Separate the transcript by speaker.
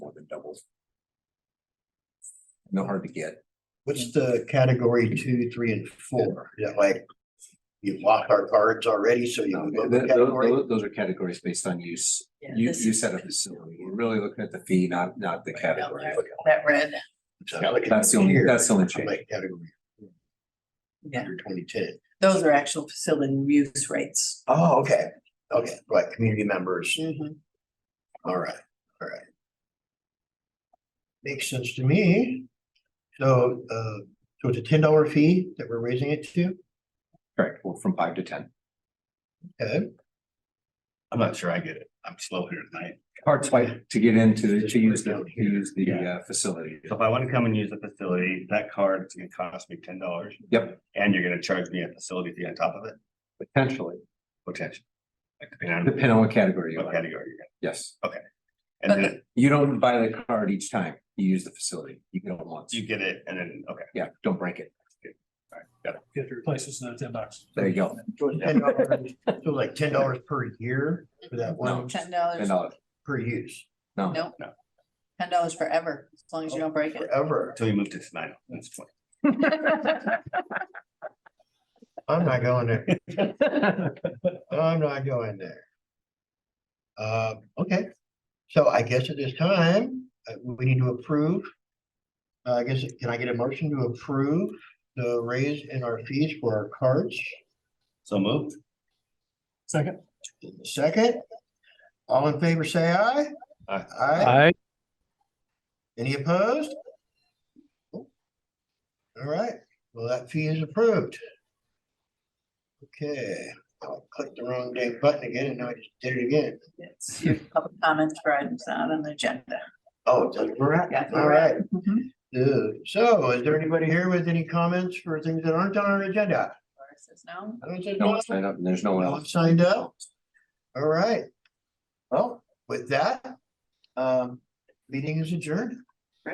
Speaker 1: no hard to get.
Speaker 2: What's the category two, three and four? Is that like? You've lost our cards already, so you
Speaker 1: Um,
Speaker 2: can go
Speaker 1: th-
Speaker 2: to
Speaker 1: th-
Speaker 2: category.
Speaker 1: Those those are categories based on use.
Speaker 3: Yeah,
Speaker 1: You,
Speaker 3: this
Speaker 1: you
Speaker 3: is-
Speaker 1: set a facility. We're really looking at the fee, not, not the category.
Speaker 3: That red,
Speaker 1: That's the only, that's the only
Speaker 2: I'm
Speaker 1: change.
Speaker 2: like category.
Speaker 3: Yeah.
Speaker 2: Under twenty ten.
Speaker 3: those are actual facility use rates.
Speaker 2: Oh, okay, okay, right, community members,
Speaker 3: Mhm.
Speaker 2: all right, all right. Makes sense to me. So, uh, so it's a ten dollar fee that we're raising it to,
Speaker 1: Correct, well, from five to ten.
Speaker 2: okay?
Speaker 4: I'm not sure I get it. I'm slow here tonight.
Speaker 1: Hard swipe to get into,
Speaker 2: Just
Speaker 1: to use
Speaker 2: break
Speaker 1: the,
Speaker 2: down
Speaker 1: to use the
Speaker 4: Yeah.
Speaker 1: uh, facility.
Speaker 4: So if I want to come and use the facility, that card is gonna cost me ten dollars.
Speaker 1: Yep.
Speaker 4: And you're gonna charge me a facility fee on top of it,
Speaker 1: Potentially,
Speaker 4: potentially. Like, depending
Speaker 1: depending on what category
Speaker 4: on
Speaker 1: you're in,
Speaker 4: what category you're in.
Speaker 1: yes.
Speaker 4: And then
Speaker 1: You don't buy the card each time you use the facility. You get it once.
Speaker 4: you get it and then, okay,
Speaker 1: Yeah, don't break it.
Speaker 4: all right, got it.
Speaker 5: Get your places in ten bucks.
Speaker 1: There you go.
Speaker 2: So it's ten dollars, so it's like ten dollars per year for that
Speaker 1: No.
Speaker 2: one,
Speaker 3: Ten
Speaker 1: Ten
Speaker 3: dollars,
Speaker 1: dollars.
Speaker 2: per use,
Speaker 1: No,
Speaker 3: nope.
Speaker 4: No.
Speaker 3: Ten dollars forever, as long as you don't break it.
Speaker 2: forever.
Speaker 4: Until you move to Tenino, that's fine.
Speaker 2: I'm not going there. I'm not going there. Uh, okay, so I guess at this time, uh, we need to approve. Uh, I guess, can I get a motion to approve the raise in our fees for our cards?
Speaker 4: So moved.
Speaker 5: Second.
Speaker 2: Second, all in favor, say aye.
Speaker 4: Aye.
Speaker 2: Aye. Any opposed? All right, well, that fee is approved. Okay, Oh, I clicked the wrong dang button again and now I just did it again.
Speaker 3: It's your public comments for items not on the agenda.
Speaker 2: Oh, it doesn't work.
Speaker 3: Yeah,
Speaker 2: All right.
Speaker 3: Mhm.
Speaker 2: Uh, So is there anybody here with any comments for things that aren't on our agenda?
Speaker 3: Laura says no.
Speaker 2: I don't think
Speaker 1: no
Speaker 2: No
Speaker 1: one signed up and there's no one
Speaker 2: no
Speaker 1: else.
Speaker 2: one signed up? All right. Well, with that, um, meeting is adjourned.